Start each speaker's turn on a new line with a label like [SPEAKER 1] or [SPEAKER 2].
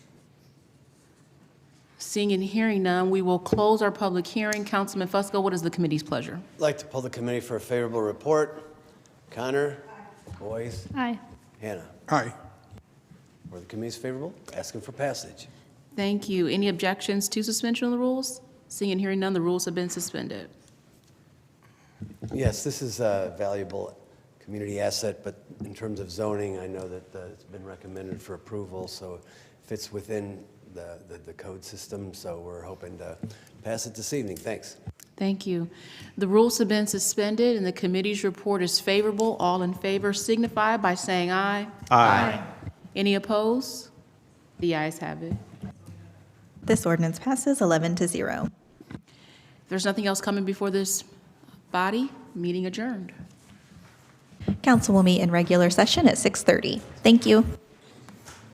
[SPEAKER 1] Seeing and hearing none, we will close our public hearing. Councilman Fusco, what is the committee's pleasure?
[SPEAKER 2] I'd like to pull the committee for a favorable report. Connor? Boyce?
[SPEAKER 3] Aye.
[SPEAKER 2] Hannah?
[SPEAKER 4] Aye.
[SPEAKER 2] Were the committees favorable? Asking for passage.
[SPEAKER 1] Thank you. Any objections to suspension of the rules? Seeing and hearing none, the rules have been suspended.
[SPEAKER 2] Yes, this is a valuable community asset, but in terms of zoning, I know that uh, it's been recommended for approval, so it fits within the, the- the code system, so we're hoping to pass it this evening. Thanks.
[SPEAKER 1] Thank you. The rules have been suspended, and the committee's report is favorable. All in favor signify by saying aye. Aye. Any opposed? The ayes have it.
[SPEAKER 5] This ordinance passes 11 to 0.
[SPEAKER 1] If there's nothing else coming before this body, meeting adjourned.
[SPEAKER 5] Council will meet in regular session at 6:30. Thank you.